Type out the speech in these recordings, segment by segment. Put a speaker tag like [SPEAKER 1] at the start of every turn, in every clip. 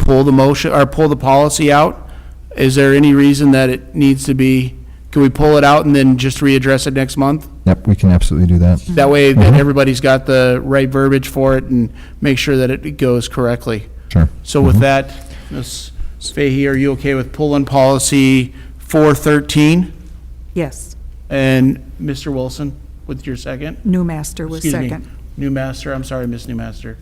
[SPEAKER 1] pull the motion, or pull the policy out? Is there any reason that it needs to be, can we pull it out and then just readdress it next month?
[SPEAKER 2] Yep, we can absolutely do that.
[SPEAKER 1] That way, that everybody's got the right verbiage for it and make sure that it goes correctly.
[SPEAKER 2] Sure.
[SPEAKER 1] So with that, Ms. Fahy, are you okay with pulling policy 413?
[SPEAKER 3] Yes,
[SPEAKER 1] And Mr. Wilson, with your second?
[SPEAKER 3] new master was
[SPEAKER 1] Excuse me,
[SPEAKER 3] second.
[SPEAKER 1] Newmaster, I'm sorry, Ms. Newmaster.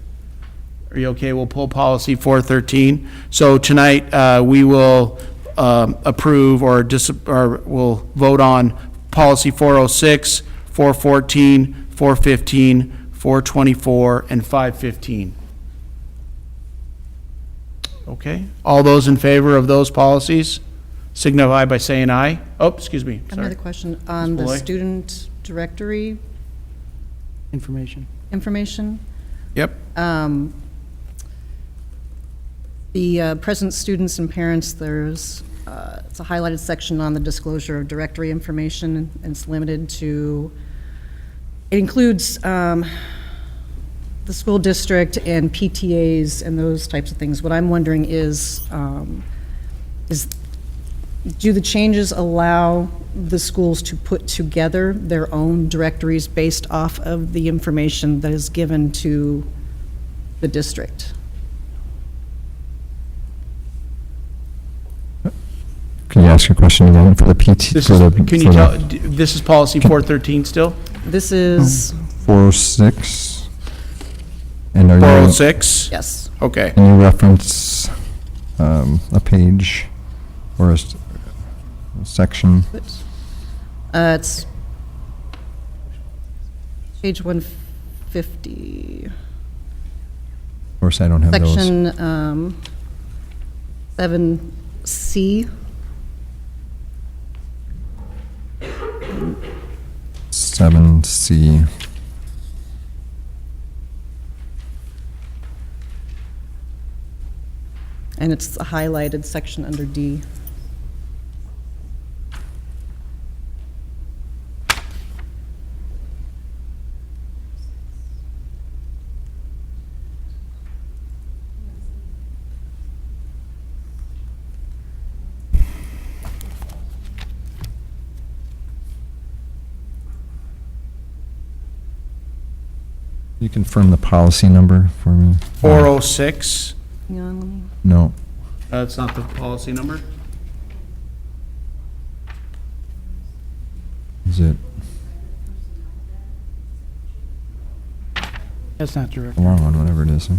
[SPEAKER 1] Are you okay? We'll pull policy 413. So tonight, uh, we will um, approve or dis, or we'll vote on policy 406, 414, 415, 424, and 515. Okay? All those in favor of those policies signify by saying aye. Oh, excuse me,
[SPEAKER 4] Another
[SPEAKER 1] sorry.
[SPEAKER 4] question on
[SPEAKER 1] Ms.
[SPEAKER 4] the
[SPEAKER 1] Malloy?
[SPEAKER 4] student directory
[SPEAKER 1] Information.
[SPEAKER 4] information.
[SPEAKER 1] Yep.
[SPEAKER 4] Um, The uh, present students and parents, there's, uh, it's a highlighted section on the disclosure of directory information, and it's limited to, it includes um, the school district and PTAs and those types of things. What I'm wondering is, um, is, do the changes allow the schools to put together their own directories based off of the information that is given to the district?
[SPEAKER 2] Can you ask your question again for the PT?
[SPEAKER 1] This
[SPEAKER 2] for
[SPEAKER 1] is,
[SPEAKER 2] the-
[SPEAKER 1] can
[SPEAKER 2] for
[SPEAKER 1] you
[SPEAKER 2] the
[SPEAKER 1] tell, d- this is policy 413 still?
[SPEAKER 4] This is,
[SPEAKER 2] 406? And are you,
[SPEAKER 1] 406?
[SPEAKER 4] yes,
[SPEAKER 1] Okay.
[SPEAKER 2] can you reference um, a page or a s- a section?
[SPEAKER 4] Uh, it's page 150,
[SPEAKER 2] Of course, I don't have those.
[SPEAKER 4] section um, 7C,
[SPEAKER 2] Seven C.
[SPEAKER 4] and it's a highlighted section under D.
[SPEAKER 2] You confirm the policy number for me?
[SPEAKER 1] oh- 406,
[SPEAKER 4] Hang on, let me-
[SPEAKER 2] No.
[SPEAKER 1] that's not the policy number?
[SPEAKER 2] Is it
[SPEAKER 5] That's not direct.
[SPEAKER 2] the long one, whatever it is? huh?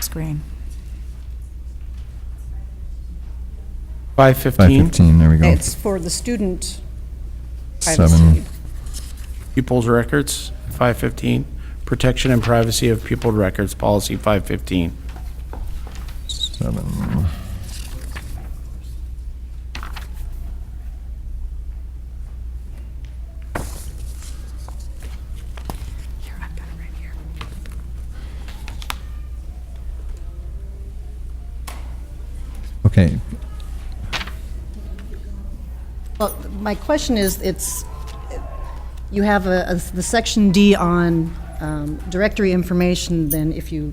[SPEAKER 3] Screen.
[SPEAKER 1] 515?
[SPEAKER 2] 515, there we go.
[SPEAKER 4] It's oh for the student privacy.
[SPEAKER 2] Seven.
[SPEAKER 1] Pupils' records, 515. Protection and privacy of pupil records, policy 515.
[SPEAKER 2] Seven.
[SPEAKER 3] Here, I've got it right here.
[SPEAKER 2] Okay,
[SPEAKER 4] Well, my question is, it's, you have a, a- the section D on um, directory information, then if you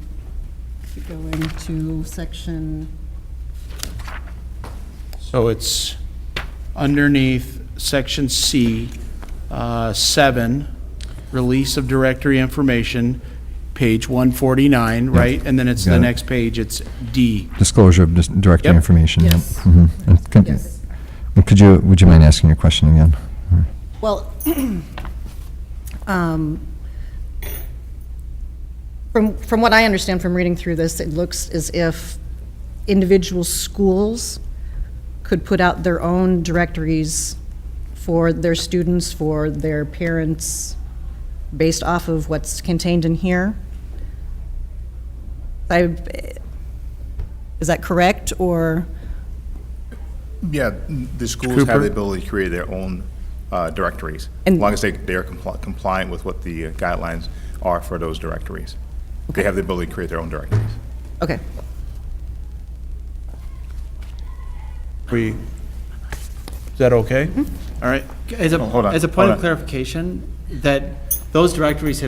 [SPEAKER 4] if you go into section,
[SPEAKER 1] So it's underneath section C, uh, 7, release of directory information, page 149, right? And then it's
[SPEAKER 2] Got
[SPEAKER 1] the
[SPEAKER 2] it.
[SPEAKER 1] next page, it's D.
[SPEAKER 2] disclosure of dis- directory
[SPEAKER 1] Yep.
[SPEAKER 2] information. yep.
[SPEAKER 4] Yes.
[SPEAKER 2] Mhm. And could-
[SPEAKER 4] Yes.
[SPEAKER 2] and Could you, would you mind asking your question again? Mm-hmm.
[SPEAKER 4] well, um, from, from what I understand from reading through this, it looks as if individual schools could put out their own directories for their students, for their parents, based off of what's contained in here? I, is that correct, or,
[SPEAKER 6] Yeah, the schools have
[SPEAKER 1] Cooper?
[SPEAKER 6] the ability to create their own uh, directories, as
[SPEAKER 4] And-
[SPEAKER 6] long as they, they are compli- compliant with what the uh, guidelines are for those directories. They have the ability to create their own directories.
[SPEAKER 4] okay,
[SPEAKER 1] We, is that okay? All right.
[SPEAKER 5] As a,
[SPEAKER 6] hold on,
[SPEAKER 5] as a point
[SPEAKER 6] hold
[SPEAKER 5] of
[SPEAKER 6] on.
[SPEAKER 5] clarification, that those directories have